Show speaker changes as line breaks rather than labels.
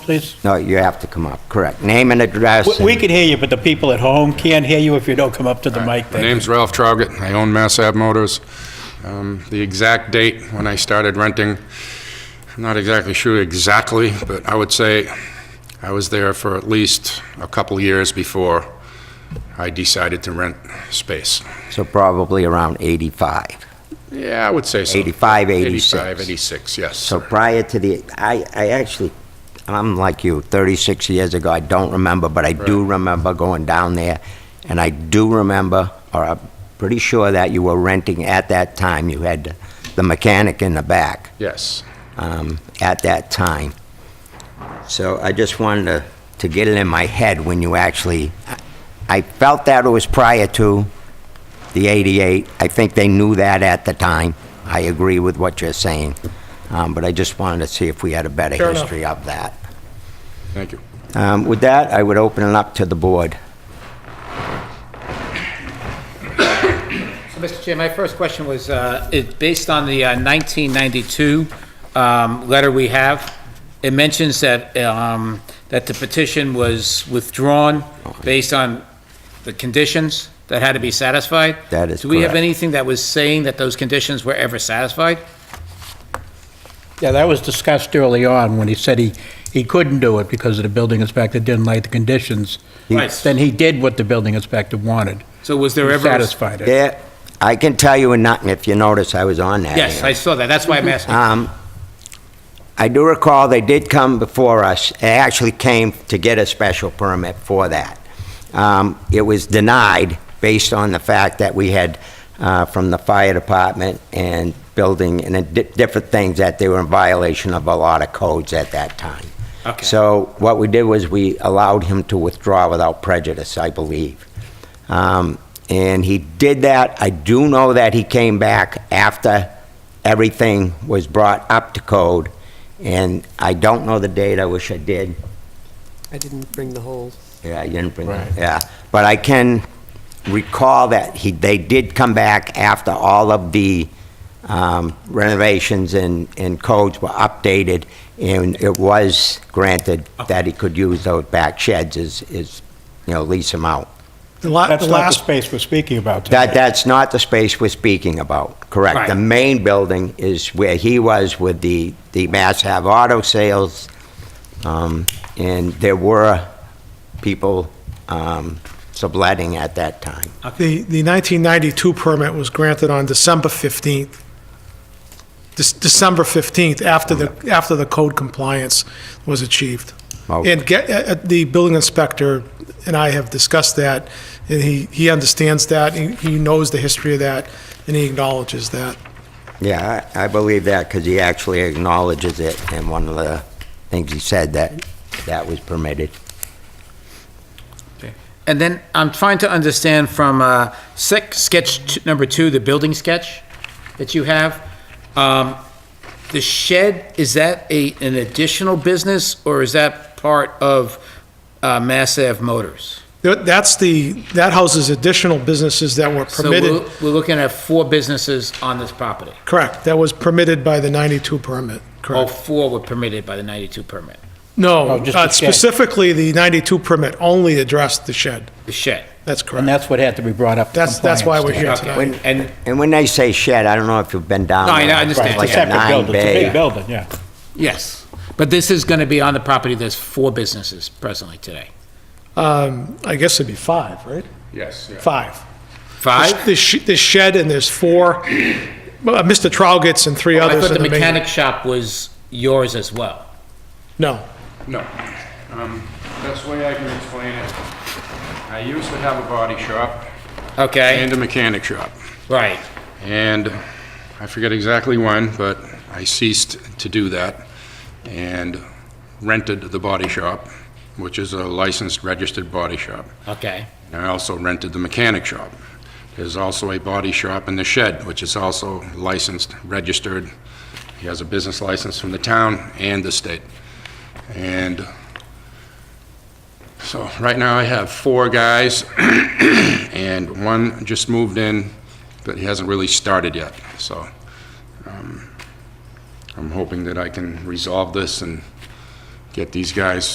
please?
No, you have to come up, correct. Name and address.
We- We
and-
can hear you, but the people at home can't hear you if you don't come up to the mic.
My name's Ralph Traugott. I own Mass Ave Motors. Um, The exact date when I started renting, I'm not exactly sure exactly, but I would say I was there for at least a couple years before I decided to rent space.
So probably around 85.
Yeah, I would say so.
85, 86.
85, 86, yes.
So
sir.
prior to the, I, I actually, I'm like you, 36 years ago, I don't remember, but I do remember going down there, and I do remember, or I'm pretty sure that you were renting at that time, you had the mechanic in the back.
Yes.
um, at that time. So I just wanted to, to get it in my head when you actually, I- I felt that it was prior to the 88. I think they knew that at the time. I agree with what you're saying. Um, But I just wanted to see if we had a better
Fair enough.
history of that.
Thank you.
Um, With that, I would open it up to the board.
Mr. Chair, my first question was, uh, it- based on the uh, 1992 um, letter we have, it mentions that, um, that the petition was withdrawn based on the conditions that had to be satisfied.
That is
Do we have
correct.
anything that was saying that those conditions were ever satisfied?
Yeah, that was discussed early on when he said he, he couldn't do it because of the building inspector didn't like the conditions.
Right.
Then he did what the building inspector wanted.
So was there
He
ever?
satisfied it.
There, I can tell you, and not, if you notice, I was on that.
Yes,
hearing.
I saw that, that's why I'm asking.
Um, I do recall they did come before us, they actually came to get a special permit for that. Um, It was denied based on the fact that we had, uh, from the fire department and building and it di- different things, that they were in violation of a lot of codes at that time.
Okay.
So what we did was we allowed him to withdraw without prejudice, I believe. Um, And he did that. I do know that he came back after everything was brought up to code, and I don't know the date, I wish I did.
I didn't bring the whole,
Yeah, you didn't bring, yeah. But I can recall that he, they did come back after all of the um, renovations and, and codes were updated, and it was granted that he could use those back sheds is, is, you know, lease them out.
The la-
That's
the
not the
last,
space we're speaking about today.
That, that's not the space we're speaking about, correct? The
Right.
main building is where he was with the, the Mass Ave Auto Sales, um, and there were people um, subletting at that time.
the the 1992 permit was granted on December 15th. Dec- December 15th, after the, after the code compliance was achieved.
Oh.
And get, uh, uh, the building inspector and I have discussed that, and he, he understands that, he he knows the history of that, and he acknowledges that.
Yeah, I I believe that, because he actually acknowledges it, and one of the things he said that, that was permitted.
And then I'm trying to understand from uh, sec- sketch t- number two, the building sketch that you have. um, The shed, is that a, an additional business or is that part of uh, Mass Ave Motors?
That- That's the, that houses additional businesses that were
So
permitted,
we're- we're looking at four businesses on this property.
correct, that was permitted by the 92 permit,
All
correct?
four were permitted by the 92 permit,
No,
No, Oh, just
uh,
the shed.
specifically, the 92 permit only addressed the shed.
the shed.
That's
And
correct.
that's what had to be brought up. to
That's, that's why we're
compliance.
here
Okay.
tonight.
When-
And-
And when they say shed, I don't know if you've been down.
No, I
there.
know, I understand.
It's
Right,
like
It's a separate building, it's a
nine-bay-
big building, yeah.
Yes. But this is going to be on the property, there's four businesses presently today.
Um, I guess it'd be five, right?
Yes. yeah.
Five.
Five?
This sh- this shed, and there's four, uh, Mr. Trowgitz and three
Oh, I
others
thought
in
the
the main.
mechanic shop was yours as well.
No.
No. Um, Best way I can explain it, I used to have a body shop and
Okay,
a mechanic shop.
right.
And I forget exactly when, but I ceased to do that and rented the body shop, which is a licensed, registered body shop.
Okay,
And I also rented the mechanic shop. There's also a body shop in the shed, which is also licensed, registered. He has a business license from the town and the state. And so right now I have four guys, and one just moved in, but he hasn't really started yet. So um, I'm hoping that I can resolve this and get these guys